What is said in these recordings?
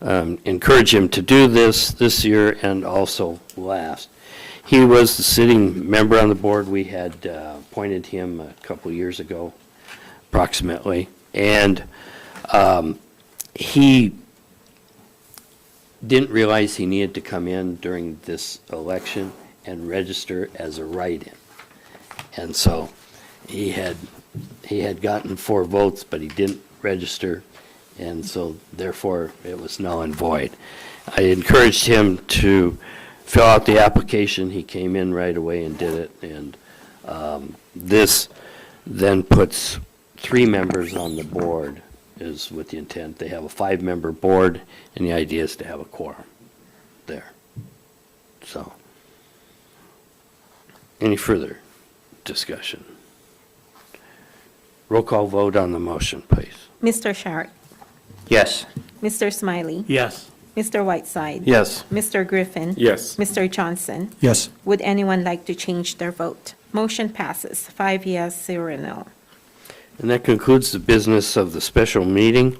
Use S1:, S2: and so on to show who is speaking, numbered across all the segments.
S1: um, encourage him to do this, this year and also last. He was the sitting member on the board. We had uh, appointed him a couple years ago, approximately. And um, he didn't realize he needed to come in during this election and register as a write-in. And so he had, he had gotten four votes, but he didn't register, and so therefore it was null and void. I encouraged him to fill out the application. He came in right away and did it, and um, this then puts three members on the board, is with the intent. They have a five-member board, and the idea is to have a quorum there. So, any further discussion? Roll call vote on the motion, please.
S2: Mr. Sharp,
S1: Yes.
S2: Mr. Smiley,
S3: Yes.
S2: Mr. Whiteside.
S1: Yes.
S2: Mr. Griffin.
S3: Yes.
S2: Mr. Johnson.
S4: Yes.
S2: Would anyone like to change their vote? Motion passes, five yes, zero no.
S1: And that concludes the business of the special meeting.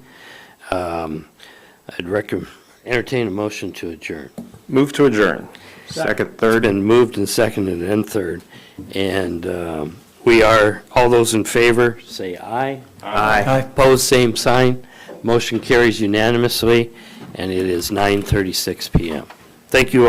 S1: Um, I'd recommend, entertain a motion to adjourn.
S5: Move to adjourn. Second,
S1: Third and moved and seconded and third. And um, we are, all those in favor, say aye.
S5: aye.
S4: Aye.
S1: Opposed, same sign. Motion carries unanimously, and it is 9:36 PM. Thank you all.